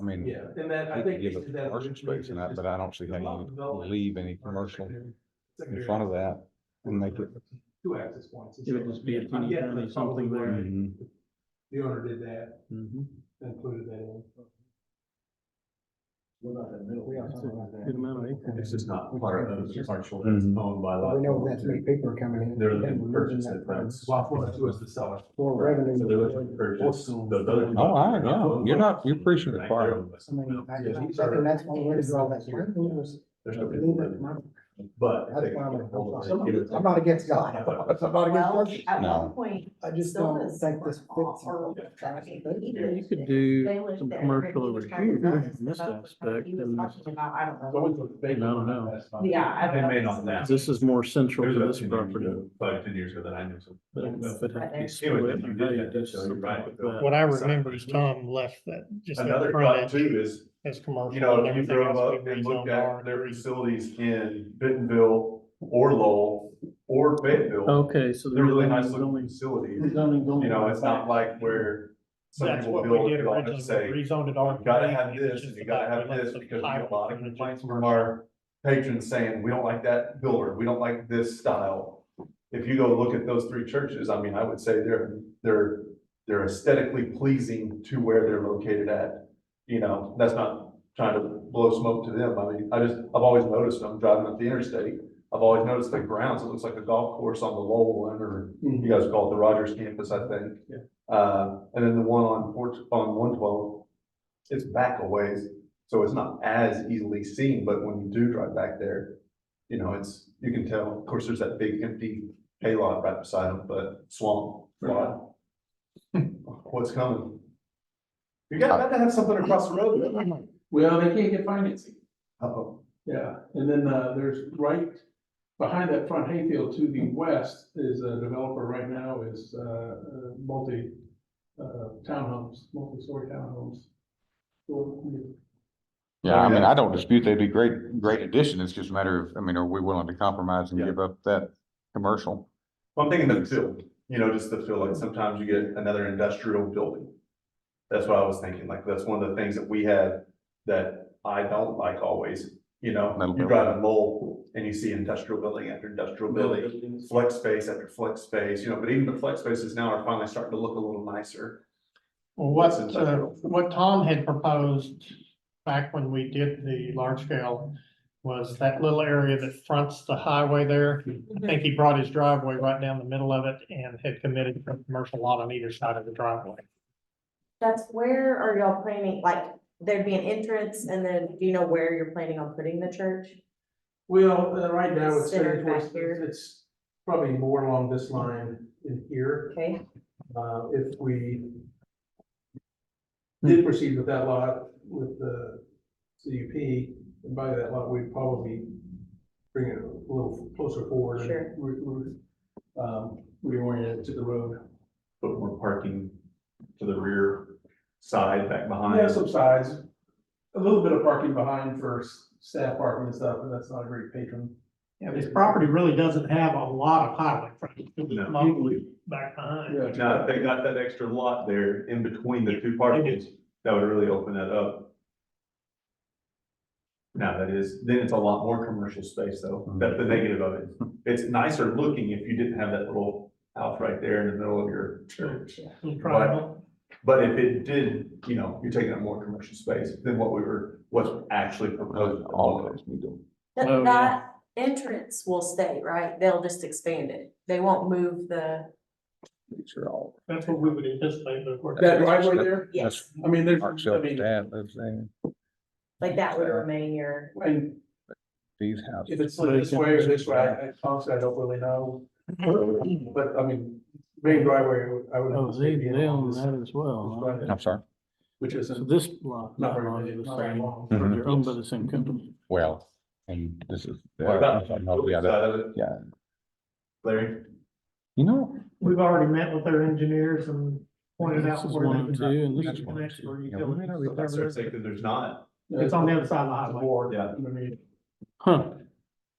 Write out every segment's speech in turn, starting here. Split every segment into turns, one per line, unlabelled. I mean,
Yeah, and that, I
you could
think.
give
we should
it
do that
commercial
originally,
space in
just-
that, but I don't see how you leave any commercial in front of that and make it.
Two access points.
It would just be a teeny
Yeah,
tiny
that's
something
probably
there.
where
Mhm.
The owner did that,
Mm-hmm.
Mhm.
included that in.
What about that middle?
That's a Good amount of acreage.
It's just not part of those commercial that's
Mhm.
owned by law.
Well, we know that's new people coming in.
They're
then
looking
we're
to
losing
purchase
that
it, but it's.
price.
Lot one, two is the seller.
For revenue.
So they're looking to purchase those other.
Oh, I- yeah, you're not- you're preaching the choir.
I mean, I- I
Yeah,
think
these are-
that's one way to draw that line.
There's no
Leave it,
reason,
my-
But.
That's why I'm-
they-
I'm not against God. I'm not against
Well,
churches.
at
No.
one point,
I just don't
sodas
think
were
this
off
fits.
or traffic
You
meters.
could
They
do
lived
some
there.
commercial over
He was
here
talking
in this
about-
aspect,
He was
and
talking about, I don't know.
I
don't
don't know.
Yeah. I
They
don't
may
know.
not now.
This is more central
There's
to
about
this
10 years
property.
ago, Probably ten years ago that I knew some.
But if it had to be
Anyway,
split,
then you
or
did
how you
that,
do
so you're
something
right.
like that.
What I remember is Tom left that, just that
Another thought
frontage
too is,
as commercial.
you know,
and
if you
everything
drove
else
up
we
and
rezoned
looked
R.
at their facilities in Bentonville or Lowell or Fayetteville,
Okay, so.
they're really nice looking
zoning-
facilities.
zoning don't
You know, it's not
apply.
like where some
That's
people
what we
build
did
it on and say,
originally, we
you
rezoned it R.
gotta have this and you gotta have this because we get a lot of complaints from our patrons saying, we don't like that builder, we don't like this style. If you go look at those three churches, I mean, I would say they're, they're, they're aesthetically pleasing to where they're located at. You know, that's not trying to blow smoke to them. I mean, I just, I've always noticed when I'm driving up the interstate. I've always noticed the grounds, it looks like a golf course on the Lowell one or you guys call it the Rogers campus, I think.
Yeah.
Uh, and then the one on four, on one twelve, it's back a ways, so it's not as easily seen, but when you do drive back there, you know, it's, you can tell, of course, there's that big empty hay lot right beside them, but swamp, lot. What's coming? You guys got to have something across the road.
Well, they can't get financing.
Uh-oh.
Yeah, and then, uh, there's right behind that front hayfield to the west is a developer right now is, uh, uh, multi, uh, townhomes, multi-story townhomes. So,
Yeah, I mean, I don't dispute they'd be great, great addition. It's just a matter of, I mean, are we willing to compromise and
Yeah.
give up that commercial?
I'm thinking the field, you know, just the field, like sometimes you get another industrial building. That's what I was thinking, like, that's one of the things that we have that I don't like always, you know,
Metal
you
building.
drive a mole and you see industrial building after industrial building. Flex space after flex space, you know, but even the flex spaces now are finally starting to look a little nicer.
Well, what,
That's
uh,
industrial.
what Tom had proposed back when we did the large scale was that little area that fronts the highway there. I think he brought his driveway right down the middle of it and had committed a commercial lot on either side of the driveway.
That's where are y'all planning, like, there'd be an entrance and then, do you know where you're planning on putting the church?
Well, uh, right now it's
Centered
headed
back
towards,
here.
it's probably more along this line in here.
Okay,
Uh, if we did proceed with that lot with the CUP, and by that lot, we'd probably bring it a little closer forward. and
Sure.
re- re- Um, reorient it to the road.
Put more parking to the rear side back behind.
Yeah, some sides, a little bit of parking behind for s- staff parking and stuff, but that's not a great patron.
Yeah, this property really doesn't have a lot of highway frontage. It was
No.
mostly back behind.
Now, if they got that extra lot there in between the two parkings, that would really open that up. Now, that is, then it's a lot more commercial space though,
Mm-hmm.
that's the negative of it. It's nicer looking if you didn't have that little house right there in the middle of your
Oh,
church.
Little triangle.
But if it did, you know, you're taking up more commercial space than what we were, what's actually proposed.
All of us need to.
that,
Oh, yeah.
that entrance will stay, right? They'll just expand it. They won't move the,
These are all.
That's what we would anticipate, but of course.
That driveway there,
yes,
I mean, there's,
Parks
I
up
mean,
that, that's there.
like that would remain your,
and
These
If
houses.
it's like this way or this way, I I honestly, I don't really know. But I mean, main driveway, I would- I would.
Oh, they, they own that as
this
well.
driveway,
I'm sorry.
Which
So
isn't,
this lot,
not
that
very,
lot
big,
is
not
the
very
same,
long.
Mhm.
they're owned by the same company.
Well, and this is.
What about the building
Yeah, that-
side of it,
Yeah,
Larry?
you know,
We've already met with their engineers and pointed
This
out
is
where they
102
can.
and this
reach
is
the
102.
next where you
Yeah, we may not
go.
be
So That's their
covered.
thing, 'cause there's not,
It's on the other side of
It's a
the highway.
board.
yeah.
I mean,
Huh,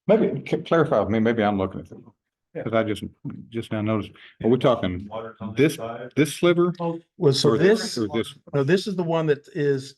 Maybe, c- clarify with me, maybe I'm looking at it. Cause I just, just now noticed, are we talking
Water's on the
this-
side.
this sliver?
Oh,
Well, so
or
this,
Or this
no, this is the one that is